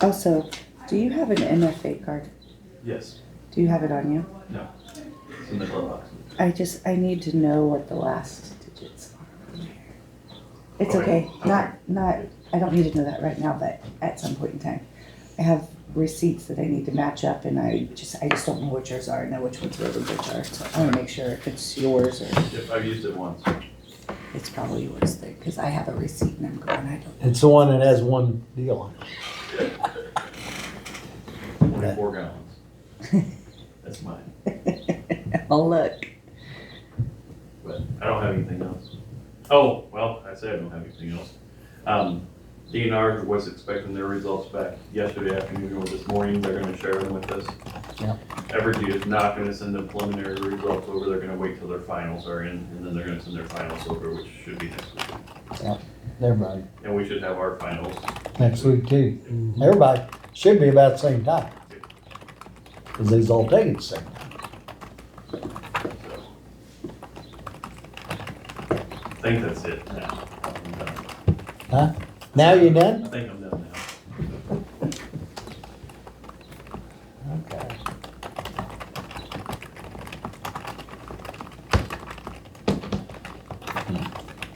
Also, do you have an MFA card? Yes. Do you have it on you? No. It's in the glove box. I just, I need to know what the last digits are. It's okay, Okay, not, not, I don't need to know that right now, but at some point in time. I have receipts that I need to match up and I just, I just don't know which yours are, I know which ones Roden Bridge are, so I wanna make sure if it's yours or Yep, I've used it once. it's probably yours there, cause I have a receipt and I'm going, I don't. It's the one that has one deal on it. Forty-four gallons. That's mine, I'll look. but I don't have anything else. Oh, well, I say I don't have anything else. Um, DNR was expecting their results back yesterday afternoon or this morning. They're gonna share them with us. Yeah. Evergy is not gonna send the preliminary results over. They're gonna wait till their finals are in, and then they're gonna send their finals over, which should be next week. Everybody, And we should have our finals. next week too. Everybody should be about the same time. Cause these all take it the same time. so. I think that's it now. I'm done. Now you I done? think I'm done now. Okay.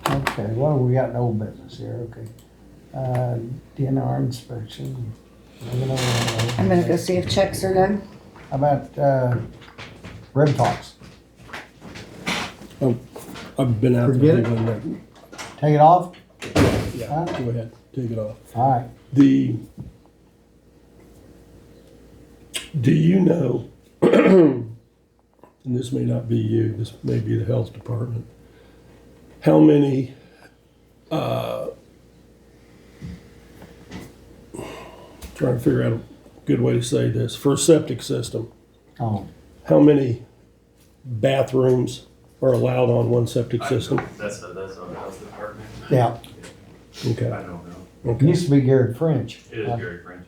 Okay, well, we got no business here, okay. Uh, DNR inspection. I'm gonna go see if checks are done. How about, uh, Red Fox? Oh, I've been out. Forget it. Take it off? Yeah, go ahead, take it off. All right. The, do you know, and this may not be you, this may be the health department, how many, uh, trying to figure out a good way to say this, for a septic system, Oh, how many bathrooms are allowed on one septic I- system? That's a, that's a health department. yeah. Okay. I don't know. It used to be Garrett French. It is Gary French.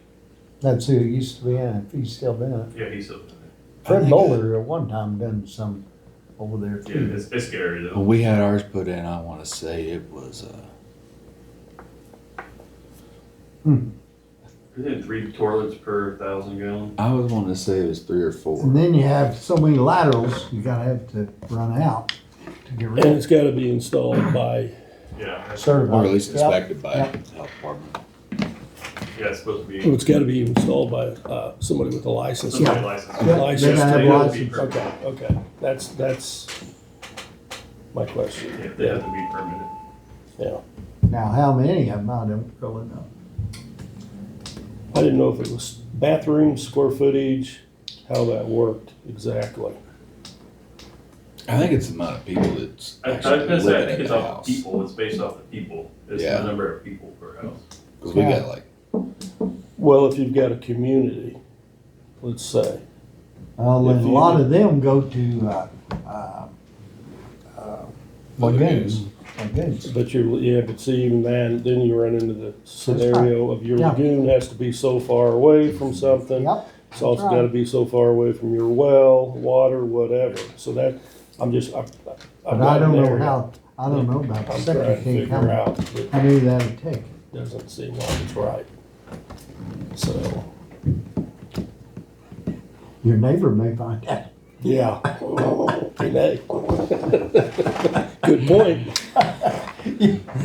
That's who it used to be in, if he's still in it. Yeah, he's, a- Fred Bowler at one time done some over there yeah, too. it's, it's Gary Well, though. we had ours put in, I wanna say it was, uh, Isn't it three toilets per thousand gallon? I was wanting to say it was three or And four. then you have so many laterals, you gotta have to run out to get rid And of it's gotta be installed by, Yeah, that's- certified. Or at least Yep. inspected by Yep. the health department. yeah, it's supposed to be. it's gotta be installed by, uh, somebody with a license. somebody yeah. licensed. Hmm. Yeah, License they gotta have plate will be license. permitted. Okay, okay, that's, that's my question, Yeah, They have to be permitted. yeah. Now, how many of them, I don't really know. I didn't know if it was bathroom, square footage, how that worked exactly. I think it's the amount of people that's I I was gonna actually say, I living think in it's the off house. people, it's based off the people. It's the Yeah. number of people per house. Cause we Yeah. got like, Well, if you've got a community, let's say, Well, If and a you- lot of them go to, uh, uh, uh, lagoons, lagoons. but you're, yeah, but see, even then, then you run into the scenario of your Yeah. lagoon has to be so far away from something. Yep, It's also right. gotta be so far away from your well, water, whatever, so that, I'm just, I. but I don't know how, I don't know about the I'm trying to septic tank, figure how, out, but how many that'd take. doesn't seem like it's right. So, Your neighbor may find out. yeah. Hey. Good point.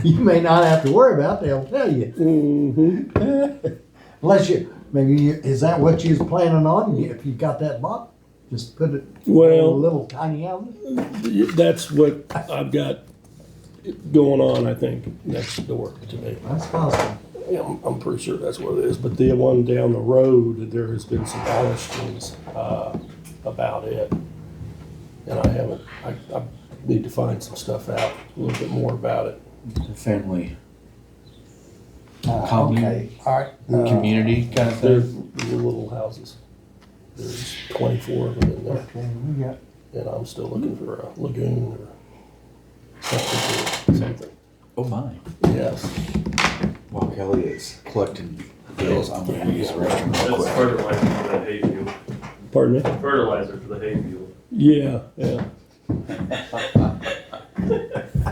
You may not have to worry about, it, they'll tell you. Mm-hmm. Mhm. Unless you, maybe, you- is that what you was planning on, if you got that bought? Just put it in a Well, little tiny outlet? that's what I've got going on, I think, next door to me. That's possible. Yeah, I'm, I'm pretty sure that's what it is, but the one down the road, there has been some questions, uh, about it. And I haven't, I, I need to find some stuff out, a little bit more about it. the family, Uh, Common. Okay, all right. uh, community kind of They're thing. the little houses. There's twenty-four of them in there, Okay, we got, and I'm still looking for a lagoon or something. or something. Oh my. Yes, While Kelly is collecting bills, I'm gonna use the restroom real That's quick. fertilizer for the hay field, pardon me? fertilizer for the hay field. Yeah, yeah.